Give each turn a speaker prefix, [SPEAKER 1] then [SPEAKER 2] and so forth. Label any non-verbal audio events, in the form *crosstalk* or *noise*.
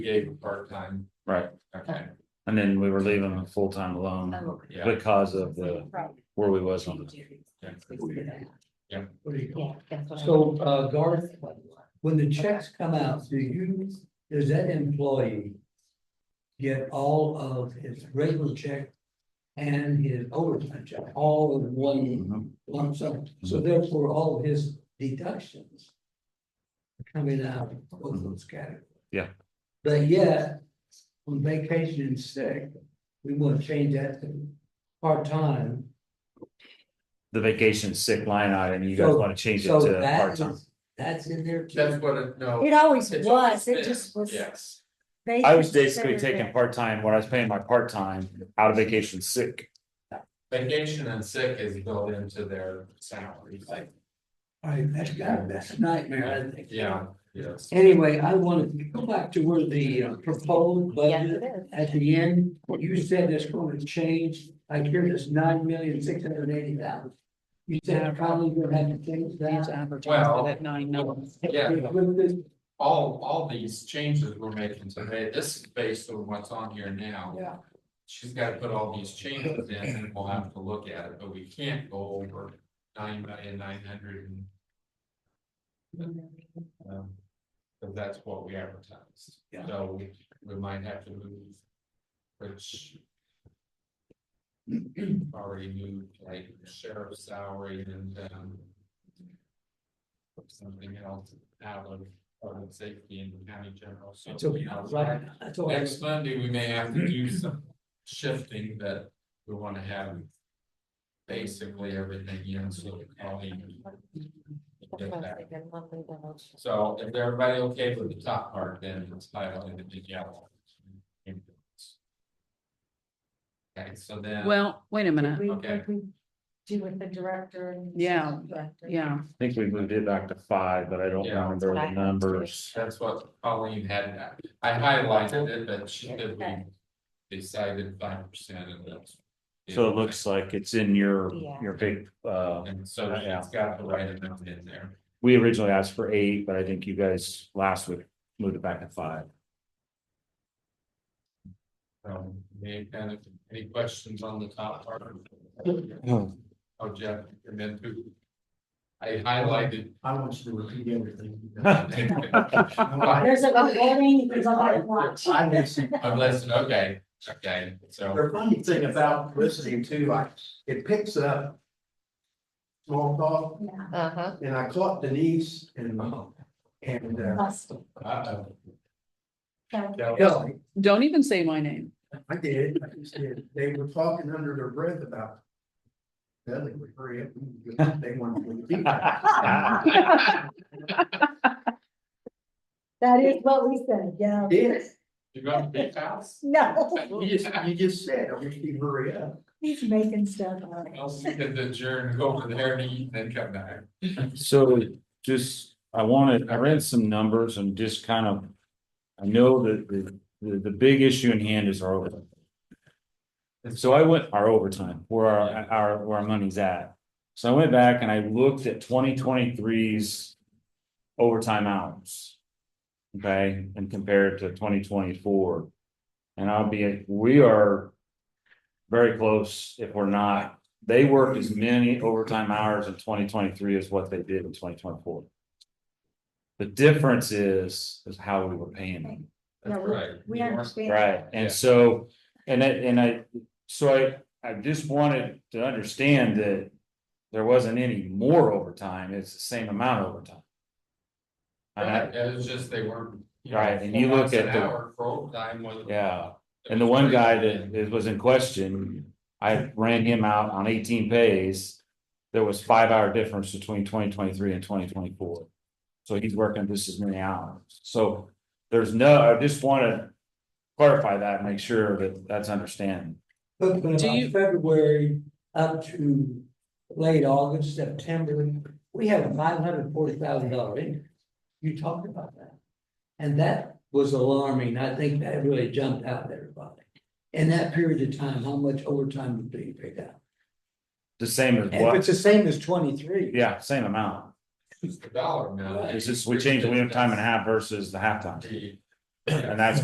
[SPEAKER 1] gave a part-time,
[SPEAKER 2] Right,
[SPEAKER 1] okay,
[SPEAKER 2] and then we were leaving him full-time
[SPEAKER 3] Um,
[SPEAKER 2] alone
[SPEAKER 1] yeah,
[SPEAKER 2] because of the, where we was on the,
[SPEAKER 1] yeah.
[SPEAKER 4] So, uh, Garth, when the checks come out, do you, does that employee get all of his regular check and his overtime check, all in one lump sum? So therefore, all of his deductions are coming out of both those categories.
[SPEAKER 2] Yeah.
[SPEAKER 4] But yet, on vacation and sick, we want to change that to part-time.
[SPEAKER 2] the vacation sick line item, you guys
[SPEAKER 4] So-
[SPEAKER 2] wanna change it
[SPEAKER 4] So
[SPEAKER 2] to
[SPEAKER 4] that
[SPEAKER 2] part-time.
[SPEAKER 4] is, that's in there too.
[SPEAKER 1] That's what, it- no.
[SPEAKER 3] It always
[SPEAKER 1] it's
[SPEAKER 3] was, it
[SPEAKER 1] been,
[SPEAKER 3] just was.
[SPEAKER 1] Yes,
[SPEAKER 3] they
[SPEAKER 2] I was
[SPEAKER 3] considered
[SPEAKER 2] basically taking
[SPEAKER 3] it-
[SPEAKER 2] part-time, what I was paying my part-time out of vacation sick,
[SPEAKER 1] vacation and sick is built into their salary, like,
[SPEAKER 4] I, that's got, that's a nightmare, I think.
[SPEAKER 1] yeah, yes.
[SPEAKER 4] Anyway, I wanted to go back to where the uh, proposed
[SPEAKER 3] Yes, it
[SPEAKER 4] budget
[SPEAKER 3] is.
[SPEAKER 4] at the end, you said it's going to change, I hear this nine million, six hundred and eighty thousand. You said probably gonna have to change that.
[SPEAKER 1] Well,
[SPEAKER 5] nine
[SPEAKER 1] yeah.
[SPEAKER 4] With this,
[SPEAKER 1] all, all these changes we're making today, this is based on what's on here now.
[SPEAKER 4] Yeah.
[SPEAKER 1] She's gotta put all these changes in and we'll have to look at it, but we can't go over nine million nine hundred and. Um, Cause that's what we advertised.
[SPEAKER 4] Yeah.
[SPEAKER 1] So we, we might have to move. Which. Already moved like sheriff's salary and, um. Something else out of, public safety and the county general, so.
[SPEAKER 4] It's okay, right, that's all. I-
[SPEAKER 1] Next Monday, we may have to do some shifting that we wanna have. Basically everything, you know, so we call it. So if everybody okay with the top part, then it's filed in the big yellow. Okay, so then.
[SPEAKER 5] Well, wait a minute,
[SPEAKER 3] We-
[SPEAKER 1] Okay.
[SPEAKER 3] we Do with the director and.
[SPEAKER 5] Yeah,
[SPEAKER 3] Director.
[SPEAKER 5] yeah,
[SPEAKER 2] I think we moved it back to five, but I don't
[SPEAKER 1] Yeah.
[SPEAKER 2] remember the numbers.
[SPEAKER 1] That's what Colleen had, I highlighted it, but she said we decided five percent and that's.
[SPEAKER 2] So it looks like it's in your,
[SPEAKER 3] Yeah.
[SPEAKER 2] your big, uh,
[SPEAKER 1] And so it's got the right amount in there.
[SPEAKER 2] we originally asked for eight, but I think you guys last week moved it back to five.
[SPEAKER 1] Um, any kind of, any questions on the top part? Oh, Jeff, and then who? I highlighted.
[SPEAKER 2] *laughs*
[SPEAKER 6] I want you to repeat everything.
[SPEAKER 3] There's a lot of voting, there's a lot of watch.
[SPEAKER 6] I listen.
[SPEAKER 1] Unless, okay, okay, so,
[SPEAKER 6] The funny thing about listening to, I, it picks up. Small talk,
[SPEAKER 3] Yeah,
[SPEAKER 7] Uh-huh.
[SPEAKER 6] and I caught Denise and, and, uh,
[SPEAKER 3] must.
[SPEAKER 1] uh,
[SPEAKER 3] So,
[SPEAKER 6] Kelly,
[SPEAKER 5] don't even say my name.
[SPEAKER 6] I did, I just did, they were talking under their breath about. Dudley would hurry up, they wanted to. repeat
[SPEAKER 3] *laughs*
[SPEAKER 6] that.
[SPEAKER 3] That is what we said, yeah.
[SPEAKER 6] Did,
[SPEAKER 1] you got a big house?
[SPEAKER 3] No, *laughs*
[SPEAKER 6] you just, you just said, I wish you'd hurry up.
[SPEAKER 3] he's making stuff up.
[SPEAKER 1] Else you could adjourn, go over there and eat, and then come back.
[SPEAKER 2] So just, I wanted, I read some numbers and just kind of. I know that the, the, the big issue in hand is our overtime. And so I went, our overtime, where our, our, where our money's at. So I went back and I looked at 2023's overtime hours. Okay, and compared to twenty twenty-four. And I'll be, we are. Very close if we're not they worked as many overtime hours in twenty twenty-three as what they did in twenty twenty-four. The difference is, is how we were paying them,
[SPEAKER 3] Yeah,
[SPEAKER 1] That's right.
[SPEAKER 3] We
[SPEAKER 1] You weren't-
[SPEAKER 3] understand.
[SPEAKER 2] right?
[SPEAKER 1] Yeah.
[SPEAKER 2] And so, and I, and I, so I, I just wanted to understand that there wasn't any more overtime, it's the same amount of overtime. And I,
[SPEAKER 1] Right, It was just they weren't. you know,
[SPEAKER 2] Right, and you
[SPEAKER 1] four
[SPEAKER 2] look
[SPEAKER 1] bucks an
[SPEAKER 2] at the-
[SPEAKER 1] Hour for overtime was.
[SPEAKER 2] yeah. And the one guy that is- was in question, I ran him out on eighteen pays. There was five hour difference between twenty twenty-three and twenty twenty-four. So he's working just as many hours. So there's no, I just wanna clarify that, and make sure that that's understanding.
[SPEAKER 4] But but
[SPEAKER 5] Do
[SPEAKER 4] about
[SPEAKER 5] you-
[SPEAKER 4] February up to late August, September, we had a five hundred forty thousand dollar increase. You talked about that. And that was alarming. I think that really jumped out at everybody. In that period of time, how much overtime was being paid out?
[SPEAKER 2] The same as
[SPEAKER 4] And if it's
[SPEAKER 2] what,
[SPEAKER 4] the same as twenty-three.
[SPEAKER 2] yeah, same amount.
[SPEAKER 1] It's the dollar amount.
[SPEAKER 2] It's just, we changed the time and a half versus the halftime.
[SPEAKER 1] The-
[SPEAKER 2] And that's